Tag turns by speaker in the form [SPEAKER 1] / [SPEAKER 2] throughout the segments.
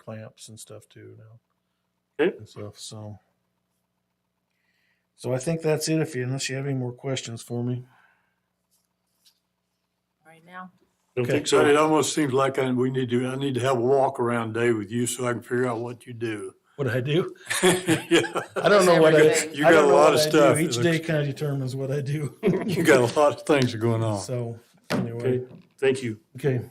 [SPEAKER 1] clamps and stuff too now.
[SPEAKER 2] Okay.
[SPEAKER 1] And stuff, so. So I think that's it if you, unless you have any more questions for me.
[SPEAKER 3] right now.
[SPEAKER 2] Don't
[SPEAKER 1] Okay.
[SPEAKER 2] think
[SPEAKER 4] But it
[SPEAKER 2] so.
[SPEAKER 4] almost seems like I, we need to, I need to have a walk around day with you so I can figure out what you do.
[SPEAKER 1] What I do?
[SPEAKER 4] Yeah,
[SPEAKER 1] I don't know what I.
[SPEAKER 3] Everything.
[SPEAKER 4] You
[SPEAKER 1] I
[SPEAKER 4] got
[SPEAKER 1] don't
[SPEAKER 4] a
[SPEAKER 1] know what
[SPEAKER 4] lot of
[SPEAKER 1] I do.
[SPEAKER 4] stuff. It
[SPEAKER 1] Each day
[SPEAKER 4] looks-
[SPEAKER 1] kind of determines what I do.
[SPEAKER 4] You got a lot of things going on.
[SPEAKER 1] So
[SPEAKER 2] Okay,
[SPEAKER 1] anyway,
[SPEAKER 2] thank you.
[SPEAKER 1] okay,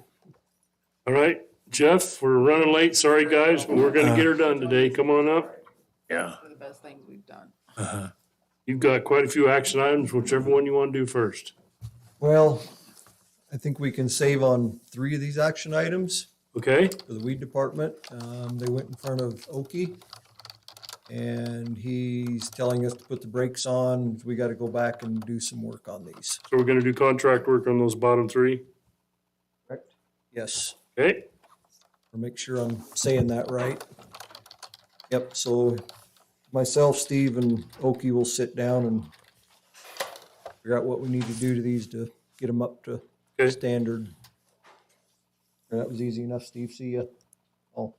[SPEAKER 2] All right, Jeff, we're running late. Sorry, guys, but we're gonna get
[SPEAKER 4] Uh,
[SPEAKER 2] her done today. Come on up.
[SPEAKER 4] Yeah.
[SPEAKER 3] One of the best things we've done.
[SPEAKER 4] Uh-huh.
[SPEAKER 2] You've got quite a few action items, whichever one you want to do first.
[SPEAKER 5] Well, I think we can save on three of these action items
[SPEAKER 2] Okay,
[SPEAKER 5] for the weed department. Um, they went in front of Oki. And he's telling us to put the brakes on. We gotta go back and do some work on these.
[SPEAKER 2] so we're gonna do contract work on those bottom three.
[SPEAKER 5] Yes,
[SPEAKER 2] Okay,
[SPEAKER 5] or make sure I'm saying that right. Yep, so myself, Steve and Oki will sit down and figure out what we need to do to these to get them up to
[SPEAKER 2] Okay.
[SPEAKER 5] standard. And that was easy enough, Steve. See ya. Oh.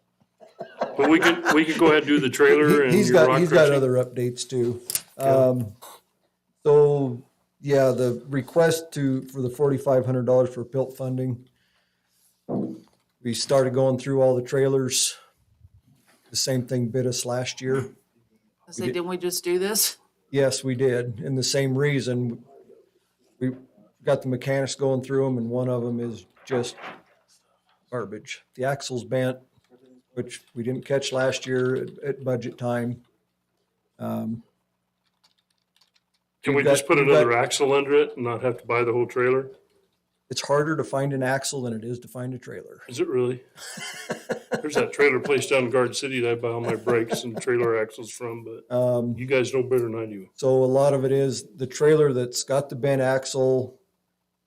[SPEAKER 2] but we could, we could go ahead and do the trailer and
[SPEAKER 5] He's
[SPEAKER 2] your
[SPEAKER 5] got,
[SPEAKER 2] rock
[SPEAKER 5] he's got
[SPEAKER 2] crushing.
[SPEAKER 5] other updates too. Um, so, yeah, the request to, for the forty-five hundred dollars for PILT funding. We started going through all the trailers. The same thing bit us last year.
[SPEAKER 3] I say, didn't we just do this?
[SPEAKER 5] Yes, we did, and the same reason. We got the mechanics going through them, and one of them is just garbage. The axle's bent, which we didn't catch last year at, at budget time. Um,
[SPEAKER 2] Can we
[SPEAKER 5] We've got-
[SPEAKER 2] just put
[SPEAKER 5] we've got-
[SPEAKER 2] another axle under it and not have to buy the whole trailer?
[SPEAKER 5] It's harder to find an axle than it is to find a trailer.
[SPEAKER 2] Is it really? There's that trailer place down in Garden City that I buy all my brakes and trailer axles from, but
[SPEAKER 5] Um,
[SPEAKER 2] you guys know better than I do.
[SPEAKER 5] So a lot of it is the trailer that's got the bent axle,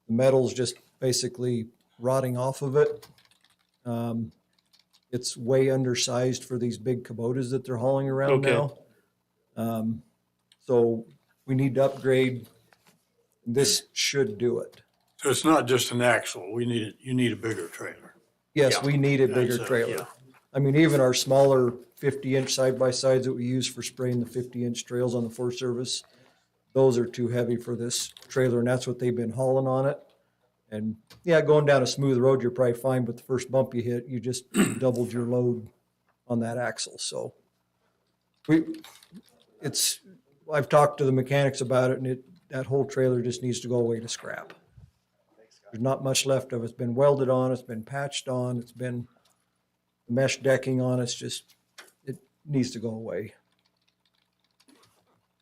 [SPEAKER 5] the metal's just basically rotting off of it. Um, it's way undersized for these big Kubotas that they're hauling around
[SPEAKER 2] Okay.
[SPEAKER 5] now. Um, so we need to upgrade. This should do it.
[SPEAKER 4] So it's not just an axle. We need it, you need a bigger trailer.
[SPEAKER 5] Yes,
[SPEAKER 2] Yeah.
[SPEAKER 5] we need a bigger
[SPEAKER 4] That's it,
[SPEAKER 5] trailer.
[SPEAKER 4] yeah.
[SPEAKER 5] I mean, even our smaller fifty inch side by sides that we use for spraying the fifty inch trails on the Forest Service, those are too heavy for this trailer and that's what they've been hauling on it. And yeah, going down a smooth road, you're probably fine, but the first bump you hit, you just doubled your load on that axle, so. We, it's, I've talked to the mechanics about it and it, that whole trailer just needs to go away to scrap. There's not much left of it. It's been welded on, it's been patched on, it's been mesh decking on, it's just, it needs to go away.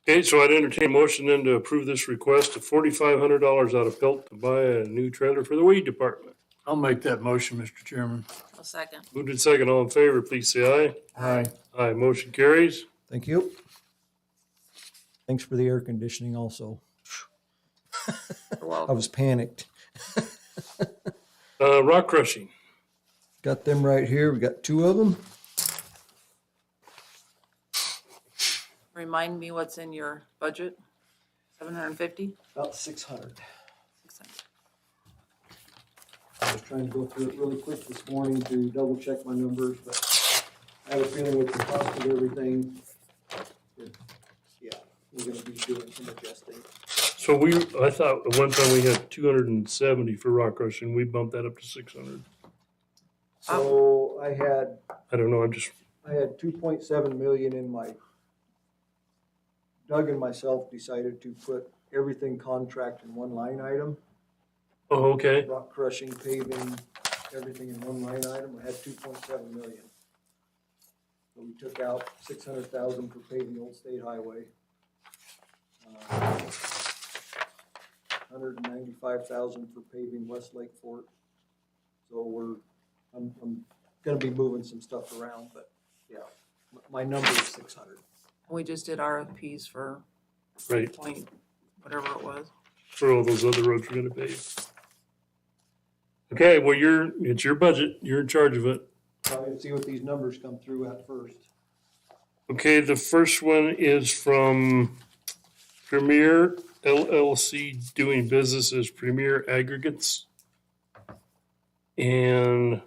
[SPEAKER 2] Okay, so I'd entertain a motion then to approve this request of forty-five hundred dollars out of Pelt to buy a new trailer for the weed department.
[SPEAKER 4] I'll make that motion, Mr. Chairman.
[SPEAKER 3] A second.
[SPEAKER 2] Moved in second, all in favor, please say
[SPEAKER 4] Aye.
[SPEAKER 2] aye. Aye, motion carries.
[SPEAKER 5] Thank you. Thanks for the air conditioning also. I
[SPEAKER 3] Well,
[SPEAKER 5] was panicked.
[SPEAKER 2] Uh, rock crushing,
[SPEAKER 5] Got them right here. We got two of them.
[SPEAKER 3] remind me what's in your budget? Seven hundred and fifty?
[SPEAKER 5] About six hundred. I was trying to go through it really quick this morning to double check my numbers, but I have a feeling with the cost of everything. it- Yeah, we're gonna be doing some adjusting.
[SPEAKER 2] so we, I thought at one time we had two hundred and seventy for rock crushing, we bumped that up to six hundred.
[SPEAKER 5] So I had
[SPEAKER 2] I don't know, I'm just,
[SPEAKER 5] I had two point seven million in my, Doug and myself decided to put everything contract in one line item.
[SPEAKER 2] oh, okay,
[SPEAKER 5] Rock crushing, paving, everything in one line item, I had two point seven million. So we took out six hundred thousand for paving Old State Highway. Uh, Hundred and ninety-five thousand for paving West Lake Fort. So we're, I'm, I'm gonna be moving some stuff around, but yeah, m- my number is six hundred.
[SPEAKER 3] We just did RFPs for
[SPEAKER 2] right,
[SPEAKER 3] point, whatever it was.
[SPEAKER 2] for all those other roads we're gonna pave. Okay, well, you're, it's your budget, you're in charge of it.
[SPEAKER 5] So I'm gonna see what these numbers come through at first.
[SPEAKER 2] Okay, the first one is from Premier LLC doing business as Premier Aggregates. And